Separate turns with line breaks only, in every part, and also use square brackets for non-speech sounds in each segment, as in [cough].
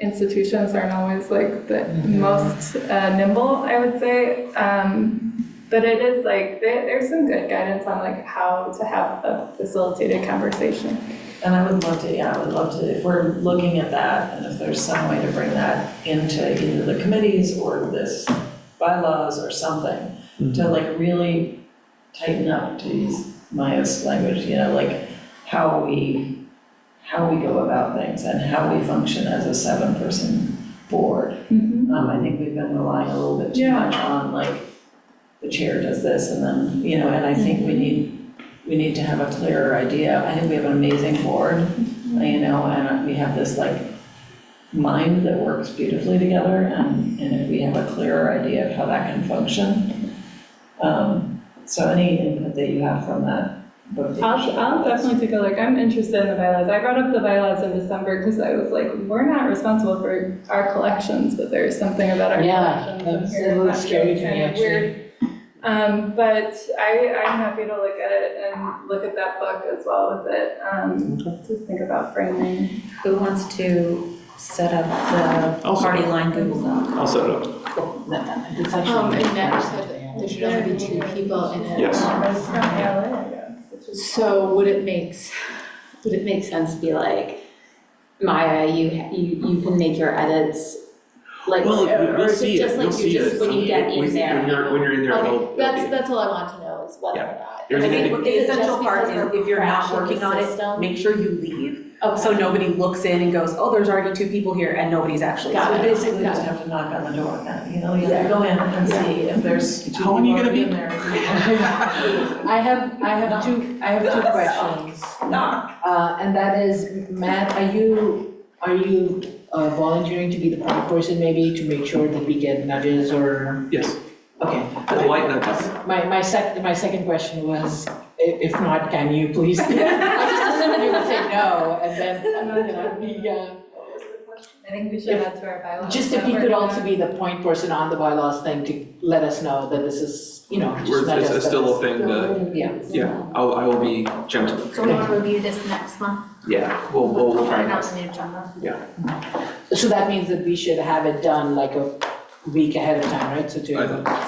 institutions aren't always like the most uh, nimble, I would say. Um, but it is like, there, there's some good guidance on like how to have a facilitated conversation.
And I would love to, yeah, I would love to, if we're looking at that, and if there's some way to bring that into either the committees or this bylaws or something, to like really tighten up, to use Maya's language, you know, like how we, how we go about things and how we function as a seven-person board. Um, I think we've been relying a little bit too
Yeah.
much on like, the chair does this and then, you know, and I think we need, we need to have a clearer idea. I think we have an amazing board,
Mm-hmm.
you know, and we have this like mind that works beautifully together and, and if we have a clearer idea of how that can function. Um, so any input that you have from that book.
I'll, I'll definitely take a look. I'm interested in the bylaws. I brought up the bylaws in December because I was like, we're not responsible for our collections, but there's something about our
Yeah,
collections. in
that's
here
a little
that
scary
feels
to me,
kind of weird.
actually.
Um, but I, I'm happy to look at it and look at that book as well with it, um, to think about framing.
Who wants to set up the
I'll set it
party line Google Doc?
I'll set it up.
It's
Um,
actually,
and Nat said there should only be two people in it.
Yes.
It's from LA, I guess, which is-
So would it makes, would it make sense to be like, Maya, you, you, you can make your edits? Like,
Well,
or
you-
or
you'll
is it
see it,
just
you'll
like,
see
you're
it.
just, when you get in there?
When you're, when you're in there, it'll-
Okay, that's, that's all I want to know is whether or not.
There's
I
an
mean,
indi-
is
The
it just
essential part
because
is
we're
if you're not
crashing the
working on it,
system?
Make sure you leave,
oh,
Okay.
so nobody looks in and goes, oh, there's already two people here and nobody's actually.
Got
So
it.
basically, you
got
just have to knock on the door now, you know, you have to go in and see if there's two
How long are you
people
gonna be-
in there. [laughs]
I have, I have two, I
[laughs]
have two questions.
Knock.
Uh, and that is, Matt, are you, are you uh, volunteering to be the point person maybe to make sure that we get nudges or?
Yes,
Okay,
polite nudges.
my, my sec, my second question was, i- if not, can you please? I just assumed you would say no, and then, you know, we, uh,
I think we
If-
add to our
Oh,
bylaws.
just if
that
you
we're
could
gonna-
also be the point person on the bylaws thing to let us know that this is, you know,
We're-
just nudge
it's-
us
it's
that
still
this-
a thing that,
Yeah,
yeah, I'll, I will be gentle.
So we'll review this next month,
Yeah, we'll, we'll, we'll try
Put it
and.
on the agenda.
so that means that we should have it done like a week ahead of time, right? So to.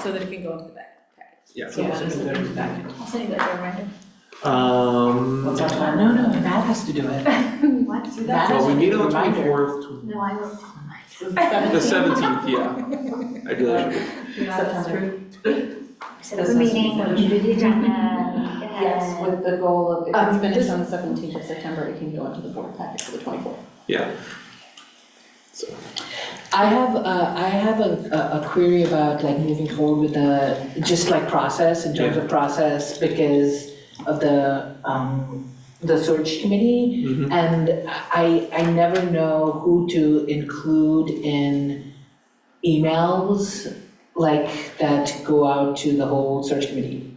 So that it can go into the back.
Yeah.
So this is the back.
I'll send you guys a reminder.
Um,
What's our plan? No, no, Matt has to
[laughs]
do it.
[laughs]
What?
Matt has
well, we
to
meet
do
on
the
the
reminder.
twenty-fourth,
No, I will.
the seventeenth,
[laughs]
yeah. I do that.
Yeah, that's true.
Set up a meeting, we do the agenda.
Yes, with the goal of, if
Um,
it's
this-
finished on the seventeenth of September, it can go into the board packet for the twenty-fourth.
I have, uh, I have a, a- a query about like moving forward with the, just like process, in terms of process, because of the, um, the search committee.
Mhm.
And I, I never know who to include in emails like that go out to the whole search committee.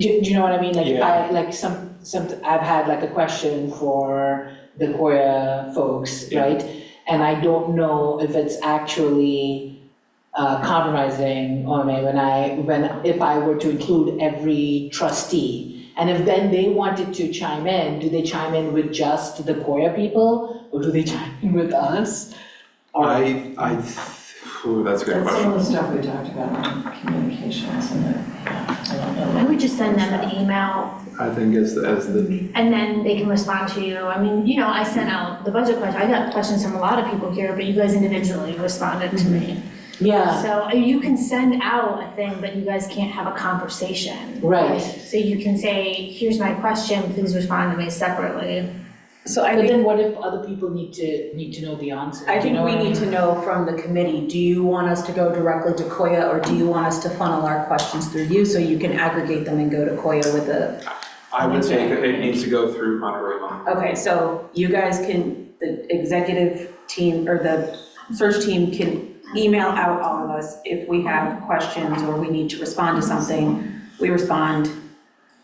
Do, do you know what I mean? Like,
Yeah.
I, like some, some, I've had like a question for the Koya folks,
Yeah.
right? And I don't know if it's actually uh, compromising OMA when I, when, if I were to include every trustee. And if then they wanted to chime in, do they chime in with just the Koya people or do they [laughs] chime in with us? Or-
I, I, ooh, that's
That's
a good
some
question.
of the stuff we talked about in communications and that, yeah, I don't know.
I would just send them an email
I think as, the- as the,
and then they can respond to you. I mean, you know, I sent out the budget question. I got questions from a lot of people here, but you guys individually responded to me.
Yeah,
So uh, you can send out a thing, but you guys can't have a conversation.
right.
So you can say, here's my question, please respond to me separately.
So I
But
think,
then what if other people need to, need to know the answer?
I
You
think
know uh,
we
what I
need
mean?
to know from the committee, do you want us to go directly to Koya or do you want us to funnel our questions through you so you can aggregate them and go to Koya with a
I would say that it needs to go through Monterey Mon.
Okay, so you guys can, the executive team or the search team can email out all of us if we have questions or we need to respond to something. We respond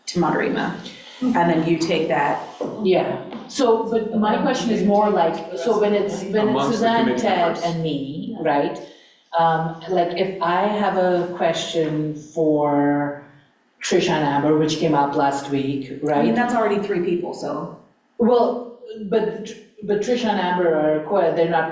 to Madarima.
Hmm.
And then you take that.
Yeah, so, but my question is more like, so when it's, when
Amongst
it's
the
Suzanne,
committee
Ted,
members.
and me, right? Um, like, if I have a question for Trish and Amber, which came up last week,
I mean,
right?
that's already three people, so.
Well, but, but Trish and Amber are, co- they're not